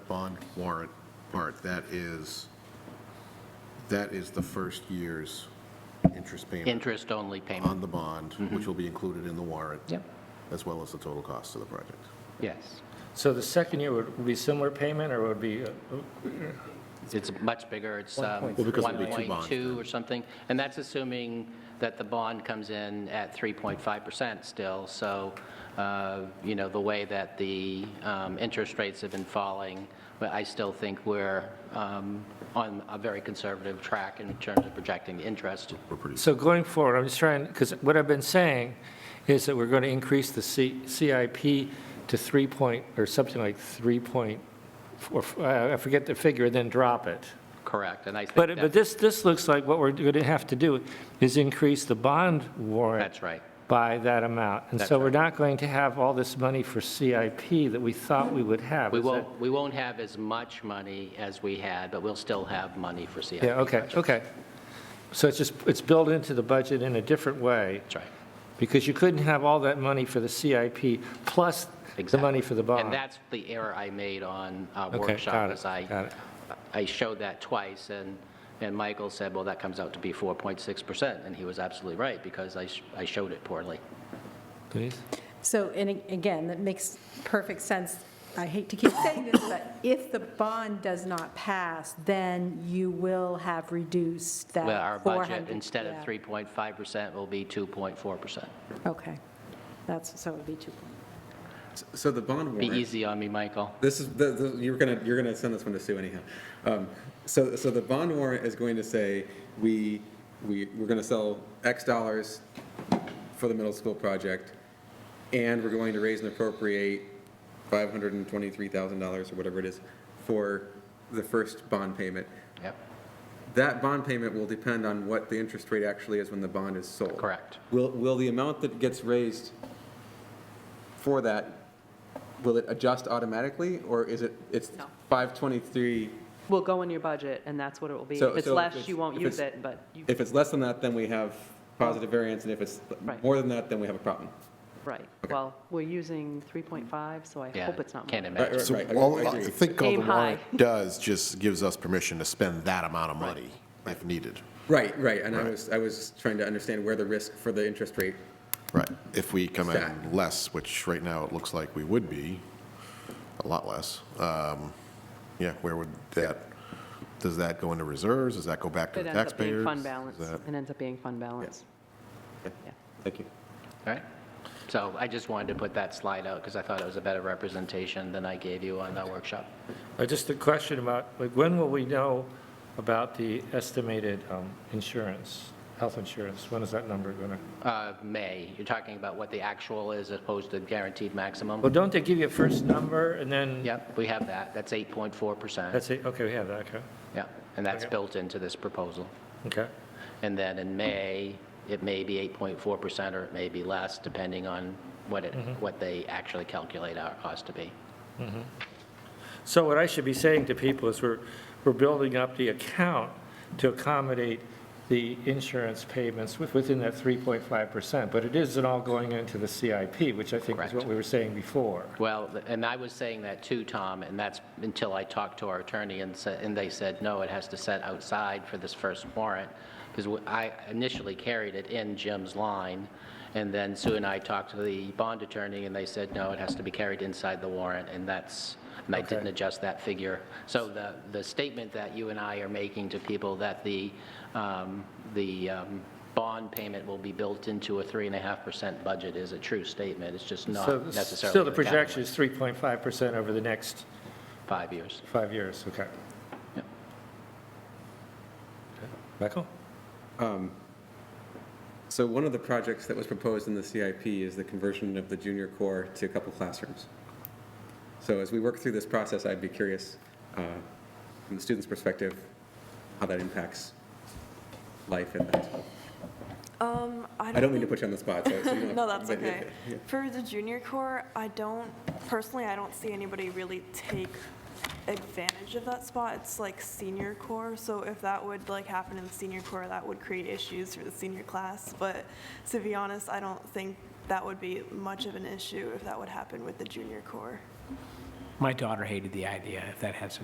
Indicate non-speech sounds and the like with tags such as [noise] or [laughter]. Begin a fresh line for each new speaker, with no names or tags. bond warrant part, that is, that is the first year's interest payment
Interest-only payment,
on the bond,
Mm-hmm.
which will be included in the warrant.
Yep.
As well as the total cost of the project.
yes.
So the second year would would be similar payment, or would be, uh,
It's much bigger, it's um,
Well, because it'll be two bonds
1.2 or something, and that's assuming that the bond comes in at 3.5% still, so, uh, you know, the way that the um, interest rates have been falling, but I still think we're um, on a very conservative track in terms of projecting the interest.
We're pretty,
so going forward, I'm just trying, because what I've been saying is that we're going to increase the C- CIP to 3 point, or something like 3 point, or, uh, I forget the figure, then drop it.
Correct, and I think
But, but
that-
this, this looks like what we're going to have to do is increase the bond warrant
that's right.
by that amount. And
That's
so we're
right.
not going to have all this money for CIP that we thought we would have.
We
Is that-
won't, we won't have as much money as we had, but we'll still have money for CIP.
Yeah, okay, okay. So it's just, it's built into the budget in a different way,
That's right.
because you couldn't have all that money for the CIP plus the
Exactly.
money for the bond.
And that's the error I made on our
Okay,
workshop,
got it,
is I,
got it.
I showed that twice, and, and Michael said, well, that comes out to be 4.6%, and he was absolutely right, because I, sh- I showed it poorly.
Denise?
So, and a- again, that makes perfect sense. I hate to keep saying this, but if the bond does not pass, then you will have reduced that
Well, our
400.
budget, instead of
yeah.
3.5%, will be 2.4%.
Okay. That's, so it would be 2. point.
So the bond
Be
warrant,
easy on me, Michael.
this is, the- the- you're gonna, you're gonna send this one to Sue anyhow. Um, So, so the bond warrant is going to say, we, we, we're gonna sell X dollars for the middle school project, and we're going to raise and appropriate $523,000 or whatever it is for the first bond payment.
Yep,
That bond payment will depend on what the interest rate actually is when the bond is sold.
Correct.
Will, will the amount that gets raised for that, will it adjust automatically, or is it, it's
No.
523?
will go in your budget, and that's what it will be.
So-
If it's
so if
less,
it's-
you won't
if
use
it's-
it, but you,
If it's less than that, then we have positive variance, and if it's
Right.
more than that, then we have a problem.
right.
Okay.
Well, we're using 3.5, so I
yeah.
hope it's not
Can't
more.
imagine.
Right,
So
right, I-
all,
I
I
agree.
think all the
Aim high.
warrant does, just gives us permission to spend that amount of money if needed.
Right, right, and I
Right.
was, I was trying to understand where the risk for the interest rate,
Right. If we come in
Exact.
less, which right now it looks like we would be, a lot less, um, yeah, where would that, does that go into reserves? Does that go back to
It
the
ends up
taxpayers?
being fund
Is
balance.
that-
It ends up being fund balance. Yeah.
thank you.
All right. So I just wanted to put that slide out, because I thought it was a better representation than I gave you on that workshop.
Uh, Just a question about, like, when will we know about the estimated um, insurance, health insurance? When is that number going to?
Uh, May, you're talking about what the actual is as opposed to guaranteed maximum?
Well, don't they give you a first number, and then?
Yep, we have that. That's 8.4%.
That's it, okay, we have that, okay,
Yeah, and that's
Okay.
built into this proposal.
okay.
And then in May, it may be 8.4% or it may be less, depending on what it,
Mm-hmm.
what they actually calculate our cost to be.
So what I should be saying to people is we're, we're building up the account to accommodate the insurance payments with- within that 3.5%, but it isn't all going into the CIP, which I think is what
Correct.
we were saying before.
Well, th- and I was saying that too, Tom, and that's until I talked to our attorney and said, and they said, no, it has to set outside for this first warrant, because I initially carried it in Jim's line, and then Sue and I talked to the bond attorney, and they said, no, it has to be carried inside the warrant, and that's, and I didn't adjust that figure. So the, the statement that you and I are making to people that the, um, the um, bond payment will be built into a 3.5% budget is a true statement, it's just not
So
necessarily.
s- Still, the
the calendar
projection is 3.5% over the next
five years.
five years, okay.
Yep.
Michael?
So one of the projects that was proposed in the CIP is the conversion of the junior core to a couple classrooms. So as we work through this process, I'd be curious, uh, from the student's perspective, how that impacts life at that school.
Um, I don't,
I don't mean to
think-
put you on the spot,
[laughs]
so. so you don't-
No, that's
but-
okay. For the junior corps, I don't personally. I don't see anybody really take advantage of that spot. It's like senior corps, so if that would like happen in senior corps, that would create issues for the senior class. But to be honest, I don't think that would be much of an issue if that would happen with the junior corps.
My daughter hated the idea, if that had some